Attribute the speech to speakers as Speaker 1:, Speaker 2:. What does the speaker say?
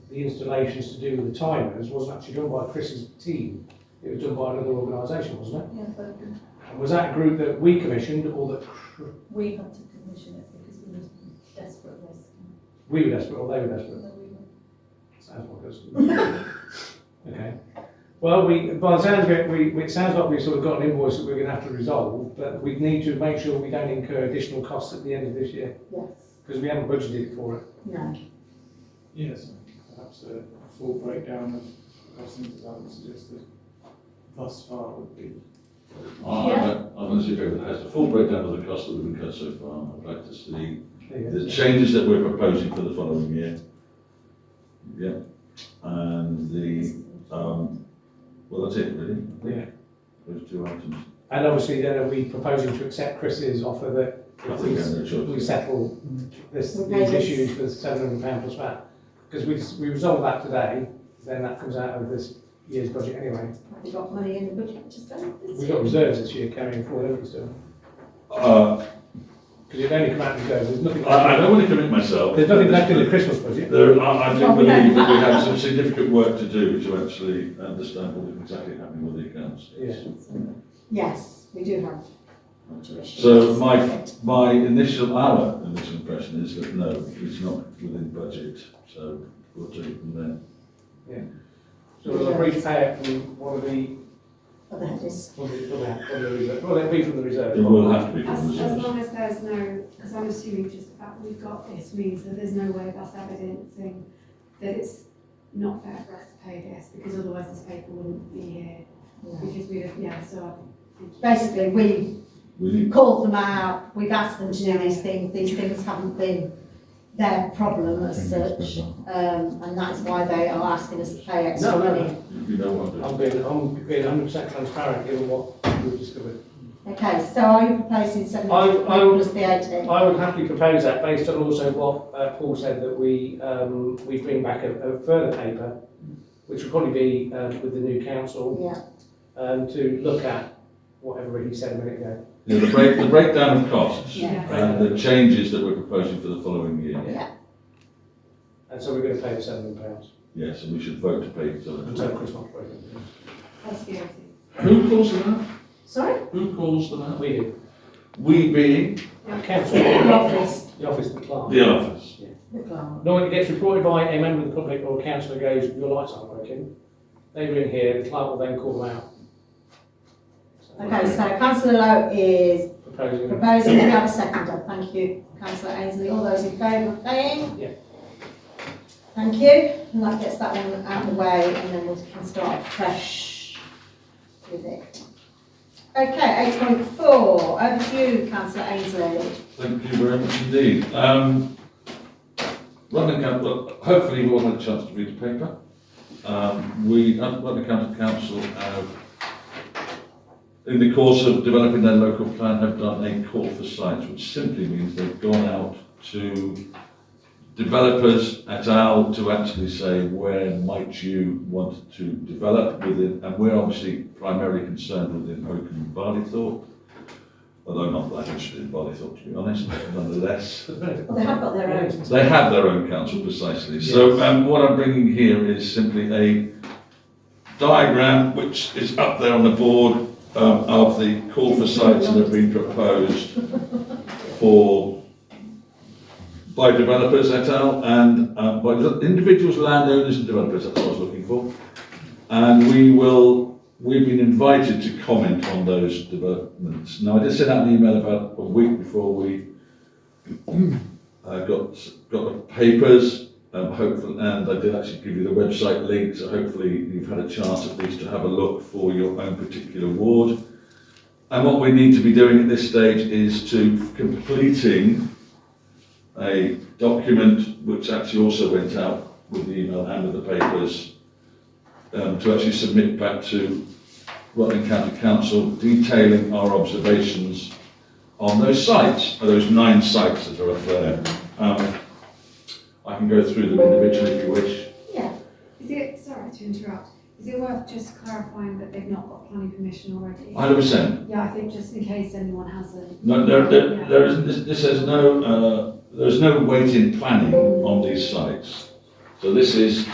Speaker 1: the installations to do with the timers wasn't actually done by Chris's team. It was done by another organisation, wasn't
Speaker 2: Yeah, but
Speaker 1: it? And was that a group that we commissioned or that Chr-
Speaker 2: we had to commission it because we were desperate risk.
Speaker 1: we were desperate or they were desperate?
Speaker 2: Although we were-
Speaker 1: Sounds like us. Okay. Well, we, by the sounds of it, we, we- it sounds like we've sort of got an invoice that we're gonna have to resolve, but we need to make sure we don't incur additional costs at the end of this year,
Speaker 2: Yes,
Speaker 1: because we haven't budgeted for it.
Speaker 2: no,
Speaker 3: Yes, perhaps a full breakdown of costings as I would suggested thus far would be.
Speaker 2: Yeah.
Speaker 4: I'm honestly agree with that. It's a full breakdown of the costs that we've incurred so far. I'd like to see
Speaker 1: There you
Speaker 4: the changes that we're proposing for the following year. Yeah, and the, um, well, that's it really. I think.
Speaker 1: Yeah.
Speaker 4: Those two items.
Speaker 1: go. And obviously then are we proposing to accept Chris's offer that
Speaker 4: I
Speaker 1: if
Speaker 4: think I'm
Speaker 1: we,
Speaker 4: not sure.
Speaker 1: we settle this,
Speaker 2: We pay
Speaker 1: these
Speaker 2: this.
Speaker 1: issues for seven hundred pound plus that? Because we, s- we resolve that today, then that comes out of this year's budget anyway.
Speaker 2: have you got money in the budget to spend this
Speaker 1: We've
Speaker 2: year?
Speaker 1: got reserves this year carrying forward, haven't we still?
Speaker 4: Uh,
Speaker 1: Because it only come out of reserves, there's nothing.
Speaker 4: I, I don't want to commit myself.
Speaker 1: There's nothing left in the Christmas budget.
Speaker 4: There, I, I do
Speaker 2: Well, we don't.
Speaker 4: believe that we have some significant work to do to actually understand what is exactly happening with the accounts.
Speaker 1: Yeah.
Speaker 2: Yes, we do have.
Speaker 4: So my, my initial, our initial impression is that no, it's not within budget, so we'll take it from there.
Speaker 1: So we'll repay it from one of the,
Speaker 2: Other headers.
Speaker 1: one of the, one of the reserves, well, it'll be from the reserve.
Speaker 4: It will have to be from
Speaker 5: As,
Speaker 4: the
Speaker 5: as
Speaker 4: reserves.
Speaker 5: long as there's no, because I'm assuming just the fact we've got this means that there's no way that's evidencing that it's not fair for us to pay this, because otherwise this paper wouldn't be here, because we have, yeah, so.
Speaker 2: Basically, we
Speaker 4: We need,
Speaker 2: called them out, we've asked them to do these things, these things haven't been their problem as such. Um, and that's why they are asking us to pay extra
Speaker 1: No, no,
Speaker 2: money.
Speaker 4: we don't want
Speaker 1: I'm being, I'm being hundred percent transparent given what we've discovered.
Speaker 2: Okay, so are you proposing seven hundred
Speaker 1: I- I would-
Speaker 2: plus the eighteen?
Speaker 1: I would happily propose that based on also what uh, Paul said, that we, um, we bring back a, a further paper, which will probably be um, with the new council,
Speaker 2: Yeah,
Speaker 1: um, to look at whatever he said a minute ago.
Speaker 4: it. Yeah, the break, the breakdown of costs
Speaker 2: Yeah.
Speaker 4: and the changes that we're proposing for the following year.
Speaker 1: And so we're going to pay the seven hundred pounds
Speaker 4: Yes, and we should vote to pay for
Speaker 1: until
Speaker 4: them.
Speaker 1: Christmas break.
Speaker 5: That's the only thing.
Speaker 4: Who calls them out?
Speaker 2: sorry?
Speaker 4: Who calls them out?
Speaker 1: We do.
Speaker 4: We being
Speaker 1: Council,
Speaker 2: The office,
Speaker 1: the office, the clerk.
Speaker 4: the office.
Speaker 2: the clerk.
Speaker 1: Normally it gets reported by a member of the public or a councillor goes, your lights aren't working. They ring here, the clerk will then call them out. So,
Speaker 2: Okay, so councillor Lowe is
Speaker 1: Proposing,
Speaker 2: proposing, we have a seconder, thank you, councillor Ainsley, all those in favour of paying?
Speaker 1: Yeah.
Speaker 2: Thank you, and that gets that one out of the way, and then we can start fresh with it. Okay, eight point four, over to you, councillor Ainsley.
Speaker 4: Thank you very much indeed. Um, London Council, hopefully we'll have a chance to read the paper. Um, we, London County Council have, in the course of developing their local plan, have done a call for sites, which simply means they've gone out to developers at AL to actually say, where might you want to develop within, and we're obviously primarily concerned within Oakham and Barleythorpe although not that interested in Bodythorpe, to be honest, nonetheless.
Speaker 2: Well, they have got their own.
Speaker 4: They have their own council precisely. So um, what I'm bringing here is simply a diagram which is up there on the board um, of the call for sites that have been proposed for by developers et al. and uh, by individuals, landowners and developers, that's what I was looking for. And we will, we've been invited to comment on those developments. Now, I did send out an email about a week before we I got got the papers, um, hopefully, and I did actually give you the website link, so hopefully you've had a chance at least to have a look for your own particular ward. And what we need to be doing at this stage is to completing a document which actually also went out with the email and with the papers um, to actually submit back to Rutland County Council detailing our observations on those sites, or those nine sites that are up there. Um, I can go through them individually if you wish.
Speaker 2: Yeah,
Speaker 5: Is it, sorry to interrupt, is it worth just clarifying that they've not got planning permission already?
Speaker 4: Hundred percent.
Speaker 5: Yeah, I think just in case anyone hasn't.
Speaker 4: No, there, there, there is, this, this has no, uh, there's no weight in planning on these sites. So this is